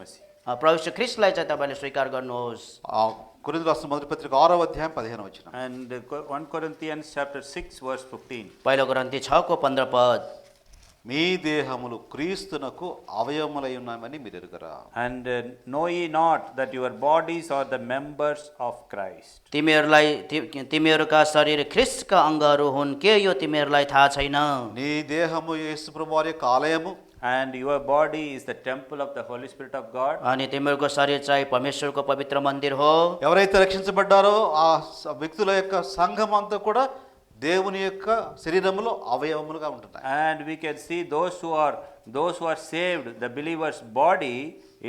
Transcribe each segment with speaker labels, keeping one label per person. Speaker 1: messy.
Speaker 2: अ, प्रभु श्री ख्रिस्टलाई चाहिँ तपाईँले स्वीकार गर्नुहोस्
Speaker 3: కొరింది రాష్ట్ర మొదటి పత్రిక ఆరో అధ్యాయం పదిహేను వచ్చిన
Speaker 1: And uh, Co- 1 Corinthians chapter 6 verse 15.
Speaker 2: पहिलो ग्रन्थी छको पन्ध्र पद
Speaker 3: మీ దేహములు క్రీస్తునకు అవయములై ఉన్నామని మీరు ఎరుగరా
Speaker 1: And uh, know ye not that your bodies are the members of Christ?
Speaker 2: तिमीहरूलाई ति- तिमीहरूका शरीर ख्रिस्टका अङ्गहरू हुन् के यो तिमीहरूलाई थाहा छैन
Speaker 3: నీ దేహము యేసు ప్రభు వారి యొక్క ఆలయము
Speaker 1: And your body is the temple of the Holy Spirit of God.
Speaker 2: अनि तिमीहरूको शरीर चाहिँ परमेश्वरको पवित्र मन्दिर हो
Speaker 3: ఎవరైతే రక్షించబడ్డారో ఆ స- వ్యక్తుల యొక్క సంఘం అంతా కూడా దేవుని యొక్క శరీరములో అవయవములుగా ఉంటున్నాయి
Speaker 1: And we can see those who are those who are saved, the believer's body,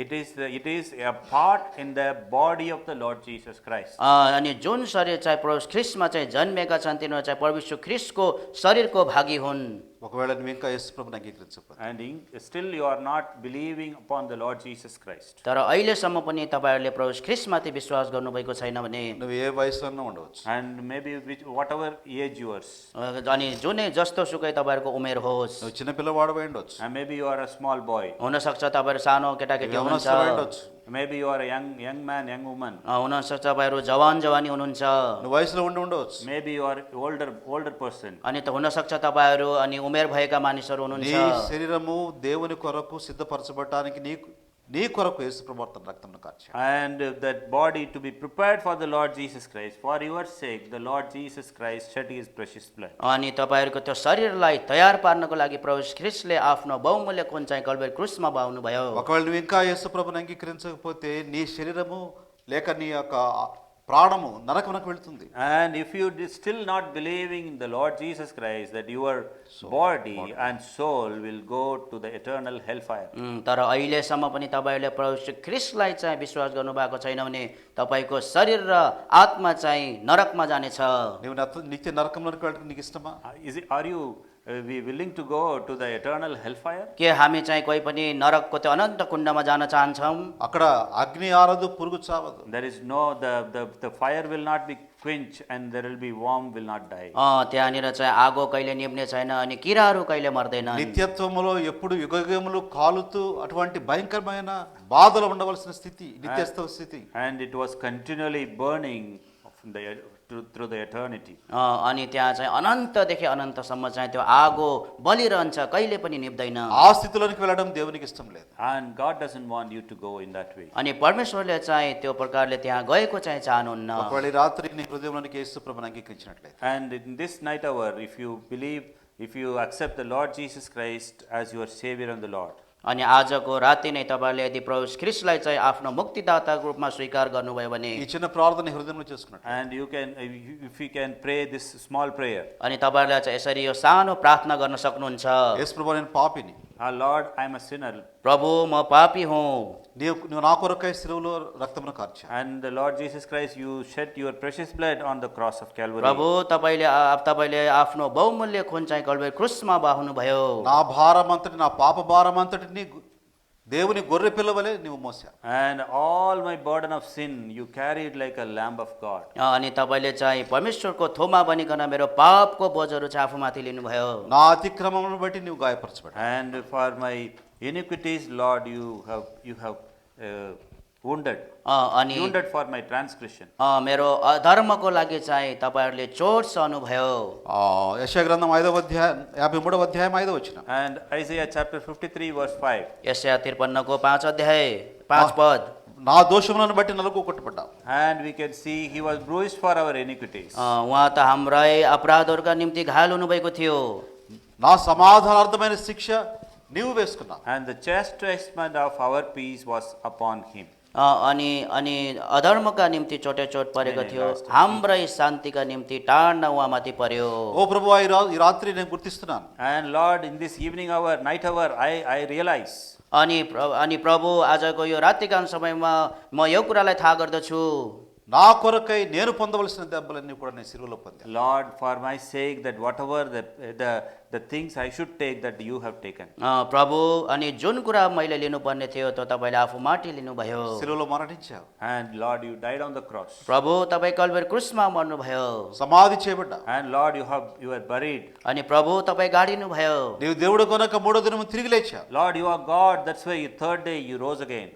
Speaker 1: it is the, it is a part in the body of the Lord Jesus Christ.
Speaker 2: अ, अनि जुन शरीर चाहिँ प्रभु ख्रिस्टमा चाहिँ जन्मेका छन् तिनीहरू चाहिँ परमेश्वर ख्रिस्टको शरीरको भागी हुन्
Speaker 3: ఒకవేళ నువ్వు ఇంకా యేసు ప్రభుని అంగీకరించకపోతే
Speaker 1: And in, still you are not believing upon the Lord Jesus Christ.
Speaker 2: तर अहिलेसम्म पनि तपाईँहरूले प्रभु ख्रिस्टमाथि विश्वास गर्नुभएको छैन भने
Speaker 3: నువ్వు ఏ వయసులో అయినా ఉండవచ్చు
Speaker 1: And maybe which, whatever age yours,
Speaker 2: अ, अनि जुनै जस्तो सुकै तपाईँहरूको उमेर होस्
Speaker 3: నువ్వు చిన్న పిల్లవాడు ఉండవచ్చు
Speaker 1: and maybe you are a small boy,
Speaker 2: हुनसक्छ तपाईँहरू सानो केटाकेटी हुनुहुन्छ
Speaker 3: యవనస్తుడు ఉండొచ్చు
Speaker 1: maybe you are a young young man, young woman,
Speaker 2: अ, हुनसक्छ तपाईँहरू जवान जवानी हुनुहुन्छ
Speaker 3: నువ్వు వయసులో ఉండి ఉండవచ్చు
Speaker 1: maybe you are older older person.
Speaker 2: अनि त हुनसक्छ तपाईँहरू अनि उमेर भएका मानिसहरू हुनुहुन्छ
Speaker 3: నీ శరీరము దేవుని కొరకు సిద్ధపరచబడటానికి నీకు నీ కొరకు యేసు ప్రభు తన రక్తమును కార్చాడు
Speaker 1: And that body to be prepared for the Lord Jesus Christ. For your sake, the Lord Jesus Christ shed his precious blood.
Speaker 2: अनि तपाईँहरूको त्यो शरीरलाई तयार पार्नको लागि प्रभु ख्रिस्टले आफ्नो बहुमूल्य कुन चाहिँ कल्बेर क्रुसमा बाउनुभयो
Speaker 3: ఒకవేళ నువ్వు ఇంకా యేసు ప్రభుని అంగీకరించకపోతే నీ శరీరము లేక నీ యొక్క ప్రాణము నరకమునకు వెళుతుంది
Speaker 1: And if you did still not believing in the Lord Jesus Christ, that your body and soul will go to the eternal hellfire.
Speaker 2: उम्, तर अहिलेसम्म पनि तपाईँहरूले प्रभु श्री ख्रिस्टलाई चाहिँ विश्वास गर्नुभएको छैन भने तपाईँको शरीर र आत्मा चाहिँ नरकमा जानेछ
Speaker 3: నువ్వు నత- నిత్య నరకంలోకి వెళ్ళడానికి నీకు ఇష్టమా
Speaker 1: Uh, Is it, are you uh, we willing to go to the eternal hellfire?
Speaker 2: के हामी चाहिँ कोही पनि नरकको त्यो अनन्त कुण्डमा जान चाहन्छौँ
Speaker 3: అక్కడ అగ్ని ఆరదు పురుగు చావదు
Speaker 1: There is no, the, the, the fire will not be quenched and there will be warm will not die.
Speaker 2: अँ, त्यहाँनिर चाहिँ आगो कहिले निप्ने छैन अनि किराहरू कहिले मर्दैन
Speaker 3: నిత్యత్వములో ఎప్పుడు యుగయుగములు కాలుతూ అటువంటి భయంకరమైన బాధలు ఉండవలసిన స్థితి నిత్యత్వ స్థితి
Speaker 1: And it was continually burning from the, through, through the eternity.
Speaker 2: अँ, अनि त्यहाँ चाहिँ अनन्तदेखि अनन्तसम्म चाहिँ त्यो आगो बलिरहन्छ कहिले पनि निप्दैन
Speaker 3: ఆ స్థితిలోనికి వెళ్ళడం దేవునికి ఇష్టం లేదు
Speaker 1: And God doesn't want you to go in that way.
Speaker 2: अनि परमेश्वरले चाहिँ त्यो प्रकारले त्यहाँ गएको चाहिँ चाहनुहुन्न
Speaker 3: ఒకవేళ ఈ రాత్రి నీ హృదయంలోనికి యేసు ప్రభుని అంగీకరించినట్లయితే
Speaker 1: And in this night hour, if you believe, if you accept the Lord Jesus Christ as your Savior and the Lord,
Speaker 2: अनि आजको राति नै तपाईँले यदि प्रभु क्रिस्टलाई चाहिँ आफ्नो मुक्तिदाताको रूपमा स्वीकार गर्नुभयो भने
Speaker 3: ఈ చిన్న ప్రార్థన నీ హృదయంలో చేసుకున్నట్టు
Speaker 1: and you can, if you can pray this small prayer,
Speaker 2: अनि तपाईँहरूलाई चाहिँ यसरी यो सानो ప్రార్థना गर्न सक्नुहुन्छ
Speaker 3: యేసు ప్రభు నేను పాపిని
Speaker 1: Our Lord, I am a sinner,
Speaker 2: प्रभु म पापी हुँ
Speaker 3: నీవు నువ్వు నా కొరకై సిలువలో రక్తమును కార్చా
Speaker 1: and the Lord Jesus Christ, you shed your precious blood on the cross of Calvary.
Speaker 2: प्रभु तपाईँले आ- तपाईँले आफ्नो बहुमूल्य खुन चाहिँ कल्वे क्रुसमा बाहुनुभयो
Speaker 3: నా భారం అంతటి నా పాప భారం అంతటిని గు- దేవుని గొర్రె పిల్లవలే నువ్వు Mosa
Speaker 1: And all my burden of sin, you carried like a lamb of God.
Speaker 2: अनि तपाईँले चाहिँ परमेश्वरको थोमा बनिकन मेरो पापको बोझहरू चाहिँ आफूमाथि लिनुभयो
Speaker 3: నా అతిక్రమమును బట్టి నువ్వు గాయపరచబడ్డా
Speaker 1: And for my iniquities, Lord, you have, you have uh, wounded,
Speaker 2: अ, अनि
Speaker 1: wounded for my transgression.
Speaker 2: अ, मेरो अधर्मको लागि चाहिँ तपाईँहरूले चोट सहनुभयो
Speaker 3: ఆ, యెషయా గ్రంథం ఐదవ అధ్యాయం యాభై మూడవ అధ్యాయం ఐదవ వచ్చిన
Speaker 1: And Isaiah chapter 53, verse 5.
Speaker 2: यसया त्रिपन्नको पाँच अध्याय पाँच पद
Speaker 3: నా దోషములను బట్టి నలుగు కొట్టుబడ్డావు
Speaker 1: And we can see he was bruised for our iniquities,
Speaker 2: अ, उहाँ त हाम्रै अपराधहरूका निम्ति घायल हुनुभएको थियो
Speaker 3: నా సమాధానార్థమైన శిక్ష నీవు వేసుకున్నావు
Speaker 1: and the chastisement of our peace was upon him.
Speaker 2: अ, अनि अनि अधर्मका निम्ति चोटे चोट परेको
Speaker 1: नहीं,
Speaker 2: थियो
Speaker 1: last.
Speaker 2: हाम्रै शान्तिका निम्ति टाढ्न उहाँमाथि पर्यो
Speaker 3: ఓ ప్రభువా ఈ రా- ఈ రాత్రి నేను గుర్తిస్తున్నాను
Speaker 1: And Lord, in this evening hour, night hour, I, I realize
Speaker 2: अनि प्र- अनि प्रभु आजको यो रातिकान समयमा म यो कुरालाई थाहा गर्दछु
Speaker 3: నా కొరకై నేను పొందవలసిన దెబ్బలన్నీ కూడా నేను సిలువలో పొందాను
Speaker 1: Lord, for my sake, that whatever the, the, the things I should take, that you have taken.
Speaker 2: अ, प्रभु अनि जुन कुरा मैले लिनुपर्ने थियो त्यो तपाईँले आफू माटी लिनुभयो
Speaker 3: సిలువలో మరణించావు
Speaker 1: And Lord, you died on the cross.
Speaker 2: प्रभु तपाईँ कल्वेर क्रुसमा मर्नुभयो
Speaker 3: సమాధి చేయబడ్డా
Speaker 1: And Lord, you have you are buried.
Speaker 2: अनि प्रभु तपाईँ गाडिनुभयो
Speaker 3: నీవు దేవుడు కొనక మూడో దినము తిరిగి లేచావు
Speaker 1: Lord, you are God. That's why you, third day you rose again.